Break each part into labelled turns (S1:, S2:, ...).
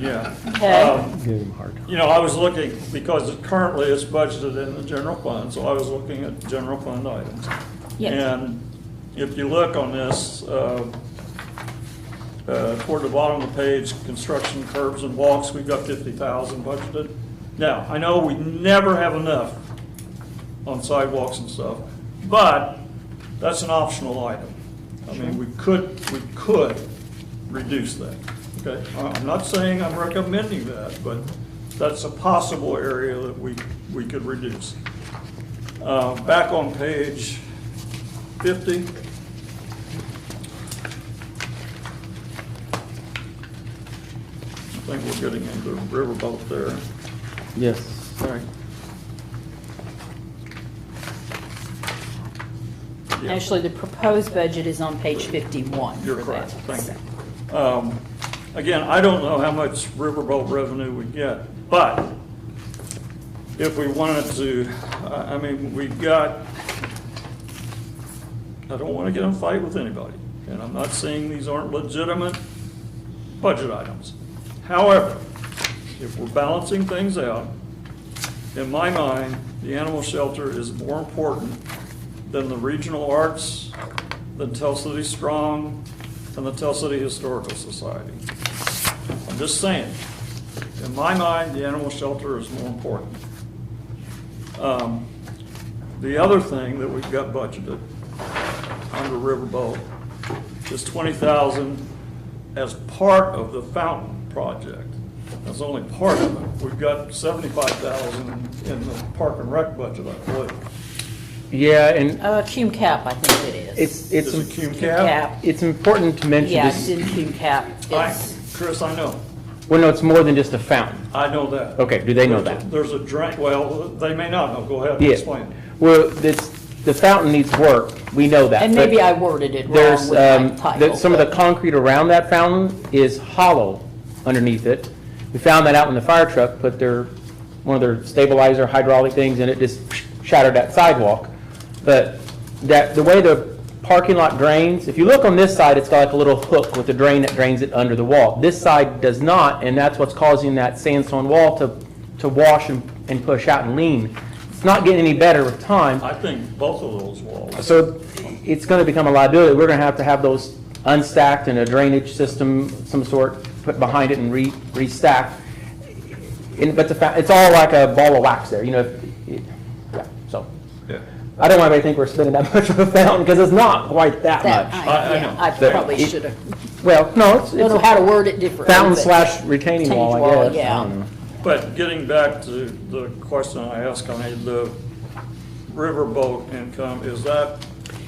S1: Yeah.
S2: Okay.
S1: Um,
S3: Give him hard.
S1: You know, I was looking, because currently it's budgeted in the general fund, so I was looking at general fund items.
S2: Yes.
S1: And if you look on this, uh, uh, toward the bottom of the page, construction curbs and walks, we've got 50,000 budgeted. Now, I know we never have enough on sidewalks and stuff, but that's an optional item. I mean, we could, we could reduce that, okay? I- I'm not saying I'm recommending that, but that's a possible area that we, we could reduce. Uh, Back on page 50, I think we're getting into riverboat there.
S3: Yes.
S1: Sorry.
S2: Actually, the proposed budget is on page 51.
S1: You're
S2: for
S1: correct,
S2: that.
S1: thank you. Um, Again, I don't know how much riverboat revenue we get, but if we wanted to, I I mean, we've got, I don't want to get in a fight with anybody, and I'm not saying these aren't legitimate budget items. However, if we're balancing things out, in my mind, the animal shelter is more important than the regional arts, than Tell City Strong, and the Tell City Historical Society. I'm just saying, in my mind, the animal shelter is more important. Um, The other thing that we've got budgeted under Riverboat is twenty thousand as part of the fountain project. That's only part of it. We've got seventy-five thousand in the park and rec budget, I believe.
S3: Yeah, and
S2: Uh, Cume Cap, I think it is.
S3: it's,
S1: Is it
S3: it's,
S1: cum
S2: Cap.
S1: cap?
S3: it's important to mention
S2: Yeah, it's
S3: this,
S2: in Cume Cap.
S1: I,
S2: It's-
S1: Chris, I know.
S3: well, no, it's more than just a fountain.
S1: I know that.
S3: Okay, do they know that?
S1: There's a drain, well, they may not know. Go ahead and
S3: Yeah.
S1: explain.
S3: Well, this, the fountain needs work, we know that.
S2: And
S3: but
S2: maybe I worded it wrong
S3: There's,
S2: with my
S3: um,
S2: title.
S3: the- some of the
S2: but-
S3: concrete around that fountain is hollow underneath it. We found that out when the fire truck put their, one of their stabilizer hydraulic things, and it just shattered that sidewalk. But that, the way the parking lot drains, if you look on this side, it's got like a little hook with a drain that drains it under the wall. This side does not, and that's what's causing that sandstone wall to, to wash and, and push out and lean. It's not getting any better with time.
S1: I think both of those walls.
S3: So it's going to become a liability. We're going to have to have those unstacked and a drainage system, some sort, put behind it and re, restacked. And, but the fact, it's all like a ball of wax there, you know, if- it- yeah, so.
S1: Yeah.
S3: I don't want anybody to think we're spending that much of a fountain, because it's not quite that
S2: That,
S1: I-
S3: much.
S1: I
S2: I, yeah,
S1: know.
S2: I
S3: There.
S2: probably
S3: It-
S2: should have,
S3: Well, no, it's,
S2: I don't know how
S3: it's
S2: to word it differently.
S3: fountain
S2: but-
S3: slash retaining wall,
S2: Retaining wall,
S3: I guess. I
S2: yeah.
S3: don't know.
S1: But getting back to the question I asked, I mean, the riverboat income, is that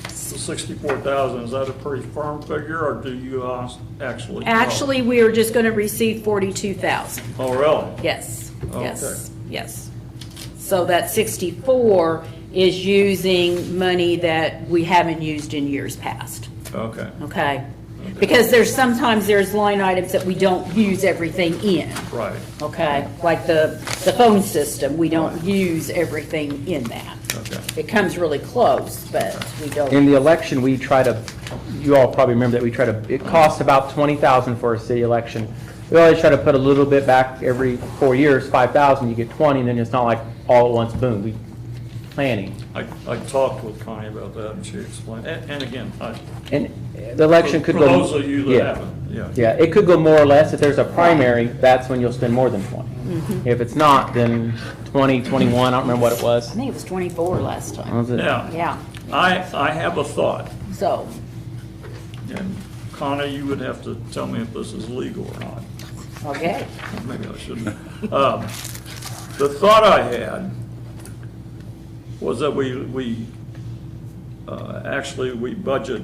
S1: the sixty-four thousand, is that a pretty firm figure, or do you uh, actually? know?
S2: Actually, we are just going to receive 42,000.
S1: Oh, really?
S2: Yes, yes,
S1: Okay.
S2: yes. So that 64 is using money that we haven't used in years past,
S1: Okay,
S2: okay? Because there's, sometimes there's line items that we don't use everything in,
S1: right,
S2: okay? Like the, the phone system, we don't use everything in that.
S1: okay.
S2: It comes really close, but we
S3: In
S2: don't,
S3: the election, we try to, you all probably remember that we try to, it costs about 20,000 for a city election. We always try to put a little bit back every four years, 5,000, you get 20, and then it's not like all at once, boom, we planning.
S1: I, I talked with Connie about that, and she explained, and, and again, I.
S3: And the election could
S1: For
S3: go.
S1: those of you
S3: Yeah.
S1: that haven't, yeah.
S3: Yeah, it could go more or less. If there's a primary, that's when you'll spend more than 20. If it's not, then 20, 21, I don't remember what it
S2: I
S3: was.
S2: think it was 24 last time,
S3: Was it-
S1: Now,
S2: yeah,
S1: I, I have a thought,
S2: so,
S1: and Connie, you would have to tell me if this is legal or not.
S2: okay.
S1: Maybe I shouldn't. Um, The thought I had was that we, we, uh, actually, we budget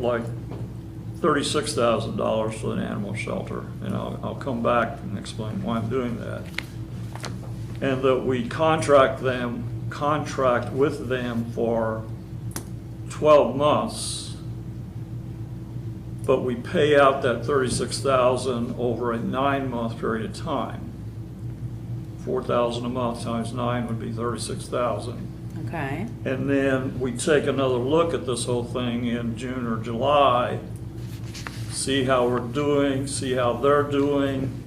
S1: like thirty-six thousand dollars for an animal shelter, and I'll, I'll come back and explain why I'm doing that. And that we contract them, contract with them for twelve months, but we pay out that thirty-six thousand over a nine-month period of time. Four thousand a month times nine would be thirty-six thousand.
S2: Okay.
S1: And then we take another look at this whole thing in June or July, see how we're doing, see how they're doing,